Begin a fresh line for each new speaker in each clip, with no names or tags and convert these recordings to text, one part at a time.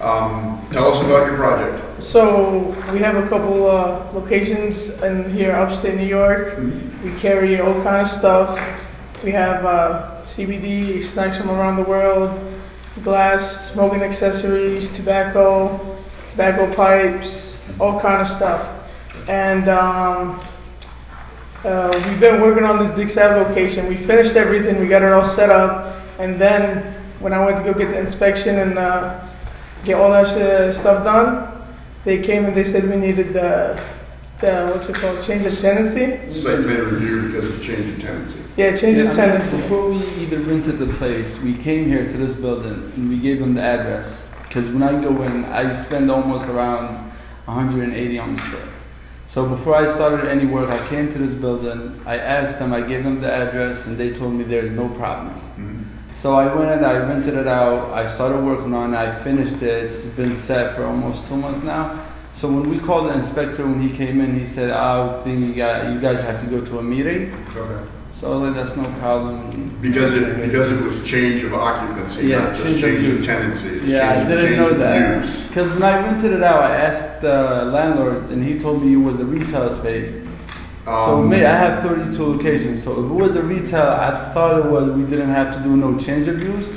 Um, Tell us about your project.
So we have a couple uh, locations in here upstate New York. We carry all kind of stuff. We have uh, CBD, snacks from around the world, glass, smoking accessories, tobacco, tobacco pipes, all kind of stuff. And um, uh, we've been working on this Dick's Ave location. We finished everything. We got it all set up. And then when I went to go get the inspection and uh, get all that shit, stuff done, they came and they said we needed the, the what's it called, change of tenancy?
Site plan review because of change of tenancy.
Yeah, change of tenancy.
Before we even rented the place, we came here to this building and we gave them the address. Because when I go in, I spend almost around 180 on the store. So before I started any work, I came to this building, I asked them, I gave them the address, and they told me there's no problems.
Mhm.
So I went and I rented it out. I started working on it. I finished it. It's been set for almost two months now. So when we called the inspector when he came in, he said, "I think you, got, you guys have to go to a meeting."
Okay.
So like, that's no problem.
Because it, because it was change of occupancy,
Yeah,
not just
change of
change of
use.
tenancy. it's
yeah, I
change-
didn't
change
know
of
that.
use.
Because when I rented it out, I asked the landlord, and he told me it was a retail space. so
Um,
me, I have 32 locations. So if it was a retail, I thought it was. We didn't have to do no change of use.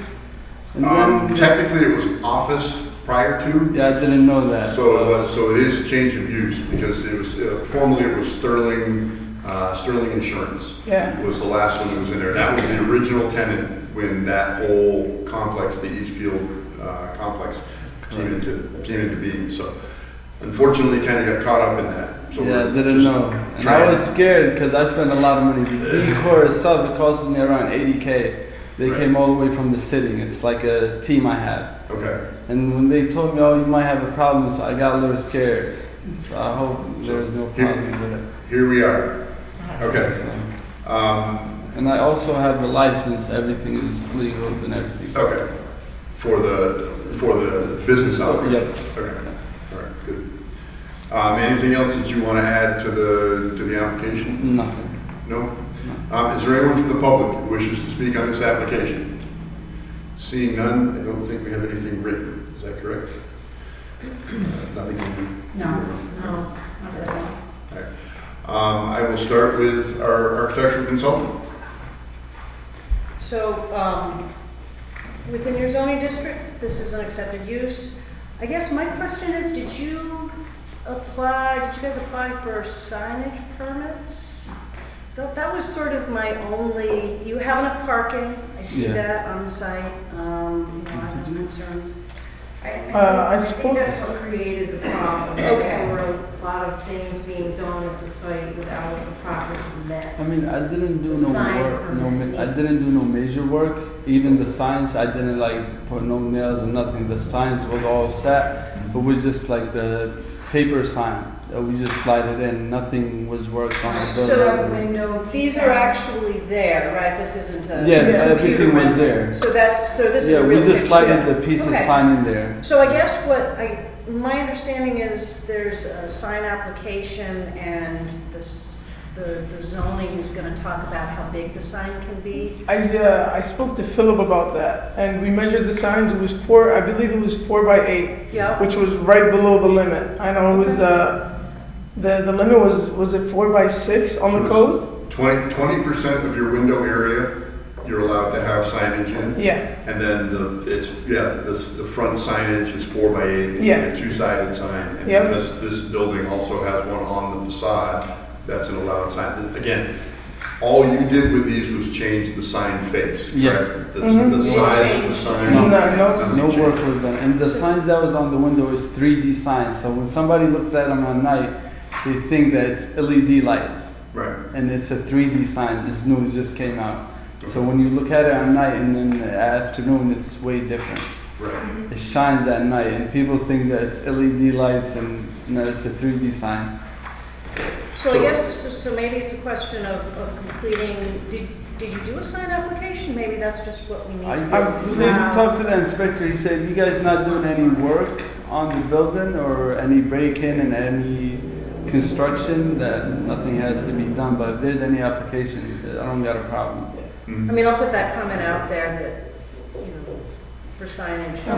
And
um,
then,
Technically, it was office prior to,
yeah, I didn't know that.
so uh, it was, so it is change of use because it was, uh, formerly it was Sterling, uh, Sterling Insurance
Yeah,
was the last one that was in there. That was the original tenant when that whole complex, the Eastfield, uh, complex came into, came into being. So unfortunately, kind of got caught up in that. So
yeah, I
we're
didn't
just
know. And
trying-
I was scared because I spent a lot of money. The decor itself, it cost me around 80k. They
Right.
came all the way from the city. It's like a team I have.
Okay.
And when they told me, oh, you might have a problem, so I got a little scared. So I hope there was no
Here-
problem with it.
Here we are. Okay.
So-
Um,
And I also have the license. Everything is legal and everything.
okay. For the, for the business hours?
Yep.
Okay, all right, good. Um, anything else that you want to add to the, to the application?
Nothing.
No? Um, is there anyone from the public who wishes to speak on this application? Seeing none, I don't think we have anything written, is that correct? Uh, Nothing? can be-
No, no, not at all.
Um, I will start with our architectural consultant.
So, um, within your zoning district, this is an accepted use. I guess my question is, did you apply, did you guys apply for signage permits? That, that was sort of my only, you have enough parking, I see
Yeah.
that on site, um, you know, I have concerns.
I-
Uh, I
I think
spoke-
that's what created the problem. is
Okay.
There were a lot of things being done at the site without the proper
I
permits.
mean, I didn't do no
Sign
work, no,
permit.
ma- I didn't do no major work. Even the signs, I didn't like put no nails or nothing. The signs was all set, but was just like the paper sign. that We just slide it in, nothing was worked on. the
So,
building.
Window
These are actually there, right? This isn't a.
Yeah,
Yeah,
everything was there.
So that's, so this is
Yeah,
a
we
real
just
picture.
slided the piece of
Okay.
sign in there.
So I guess what I, my understanding is there's a sign application and this, the the zoning is gonna talk about how big the sign can be.
I, uh, I spoke to Philip about that, and we measured the signs, it was four, I believe it was four by eight,
Yeah.
which was right below the limit. I know it was, uh, the, the limit was, was it four by six on the code?
Twenty, twenty percent of your window area, you're allowed to have signage in.
Yeah,
And then the, it's, yeah, this, the front signage is four by eight. and a
Yeah.
Two-sided sign. And
Yep.
because this building also has one on the facade, that's an allowed sign. Again, all you did with these was change the sign face,
Yes.
correct? The,
Mhm.
the
You
size of the
changed.
sign.
no, no,
Nothing
No
changed.
work was done. And the signs that was on the window is 3D signs. So when somebody looks at them at night, they think that it's LED lights.
Right,
and it's a 3D sign. It's new, it just came out. So when you look at it at night and then the afternoon, it's way different.
right.
It shines at night, and people think that it's LED lights, and no, it's a 3D sign.
So I
So-
guess, so- so maybe it's a question of, of completing, did, did you do a sign application? Maybe that's just what we need.
I,
to
I
do. Um,
they
Wow.
talked to the inspector. He said, "You guys not doing any work on the building or any break-in and any construction. That nothing has to be done. But if there's any application, I don't got a problem."
Mm-hmm.
I mean, I'll put that comment out there that, you know, for signage.